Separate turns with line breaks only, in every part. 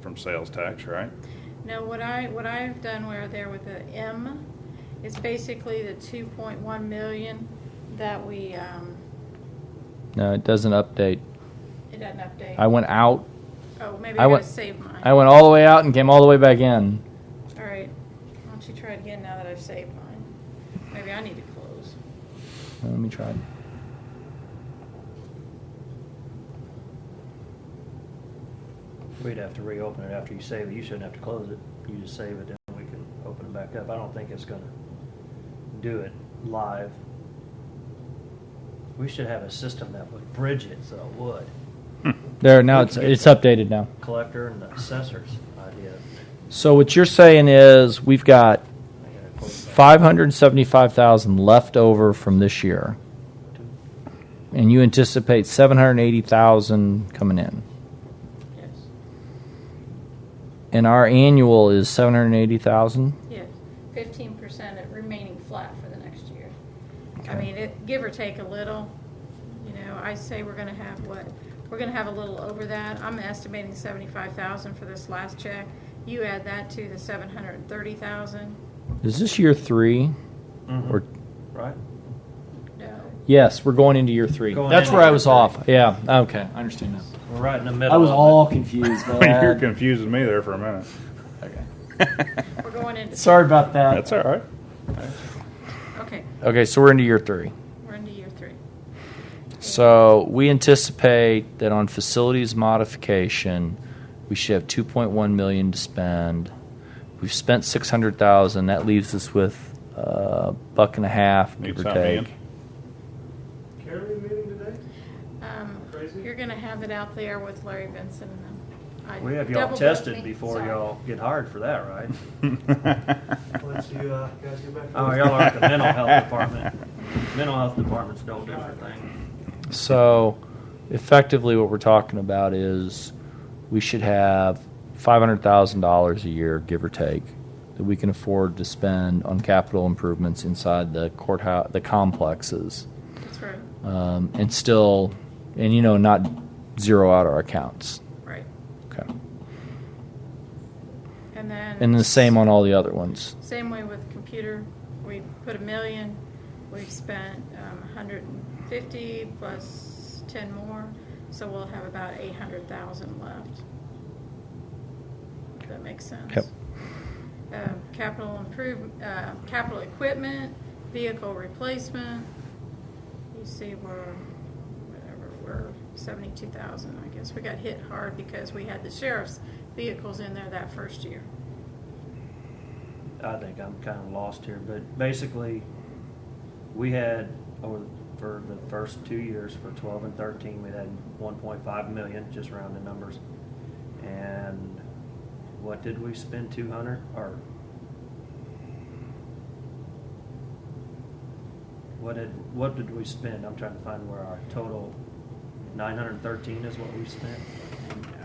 from sales tax, right?
No, what I, what I've done where there with the M is basically the two point one million that we, um,
No, it doesn't update.
it doesn't update.
I went out.
Oh, maybe
I
I gotta
went-
save mine.
I went all the way out and came all the way back in.
All right, why don't you try it again now that I've saved mine? Maybe I need to close.
Uh, Let me try. it.
We'd have to reopen it after you save it. You shouldn't have to close it. You just save it, and we can open it back up. I don't think it's gonna do it live. We should have a system that would bridge it, so it would.
There now.
We
It's
can get
it's updated now.
Collector and the assessor's idea.
So what you're saying is we've got
I gotta close that.
five hundred seventy-five thousand left over from this year, and you anticipate seven hundred eighty thousand coming in,
Yes,
and our annual is seven hundred eighty thousand.
yes, fifteen percent of remaining flat for the next year. I
Okay.
mean, it, give or take a little, you know, I say we're gonna have what, we're gonna have a little over that. I'm estimating seventy-five thousand for this last check. You add that to the seven hundred and thirty thousand,
Is this year three?
Mhm.
Or
Right?
no.
yes, we're going into year three.
Going
That's
into
where I
year
was
three.
off. Yeah. Okay, I understand now.
We're right in the middle.
I was
of it.
all confused. by
You're
that.
confusing me there for a minute.
Okay.
We're going into.
Sorry about
Uh,
that.
That's all right.
Okay,
Okay, so we're into year three.
we're into year three.
So we anticipate that on facilities modification, we should have two point one million to spend. We've spent six hundred thousand. That leaves us with a buck and a half,
Need
give or
something in.
take.
Carolyn meeting today?
Um,
Crazy?
You're gonna have it out there with Larry Benson and them. I
We have y'all
double-booked
tested
me.
before
Sorry.
y'all get hired for that, right?
Once you uh, guys get back.
Oh, y'all are at the mental health department. Mental health departments don't do anything.
So effectively, what we're talking about is we should have five hundred thousand dollars a year, give or take, that we can afford to spend on capital improvements inside the courthouse, the complexes.
That's right,
um, and still, and you know, not zero out our accounts.
right.
Okay.
And then.
And the same on all the other ones.
Same way with computer, we put a million, we've spent um, a hundred and fifty plus ten more, so we'll have about eight hundred thousand left. If that makes sense.
Yep.
Uh, Capital improve, uh, capital equipment, vehicle replacement, you see we're, whatever, we're seventy-two thousand, I guess. We got hit hard because we had the sheriff's vehicles in there that first year.
I think I'm kind of lost here, but basically, we had, over, for the first two years, for twelve and thirteen, we had one point five million, just rounded numbers. And what did we spend, two hundred, or? What did, what did we spend? I'm trying to find where our total, nine hundred and thirteen is what we spent.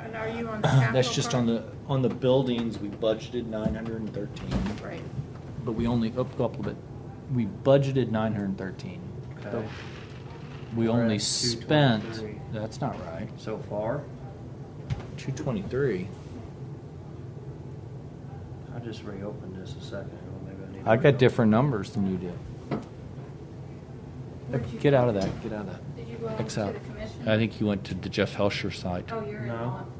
And are you on the capital?
That's just on
part?
the on the buildings. We budgeted nine hundred and thirteen,
Right,
but we only up, go up a little bit. We budgeted nine hundred thirteen.
Okay.
We
We're
only
at
spent.
223.
That's not right.
So far,
Two twenty three.
I just reopened this a second. ago. Maybe I need to
I got
reopen.
different numbers than you did.
Where'd you-
Get out of that. Get out of that.
Did you go to
Excel.
the commission?
I think you went to the Jeff Helsher site.
Oh, you're in
No.
on.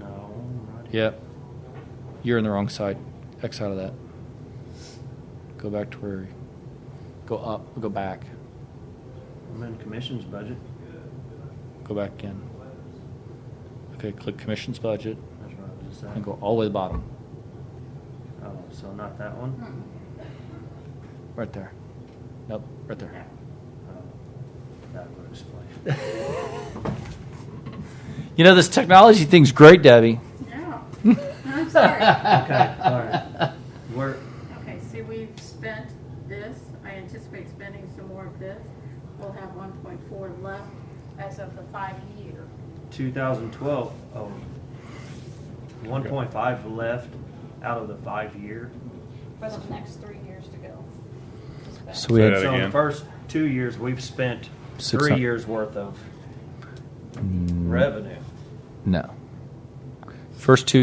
No, right. here.
Yep. You're in the wrong side. X out of that. Go back to where. Go up. Go back.
I'm in commission's budget.
Go back again. Okay, click commission's budget
That's what I was just
and
saying.
go all the way to the bottom.
Oh, so not that one?
Right there. Nope, right there.
Oh, Uh, That would explain.
You know, this technology thing's great, Debbie.
No, I'm sorry.
Okay, all right. Where,
Okay, see, we've spent this, I anticipate spending some more of this. We'll have one point four left as of the five year.
2012, oh, 1.5 left out of the five-year.
For the next three years to go. to spend.
So we had
Say
So in the
again.
first two years, we've spent
Six
three
hun-
years' worth of revenue.
no. First two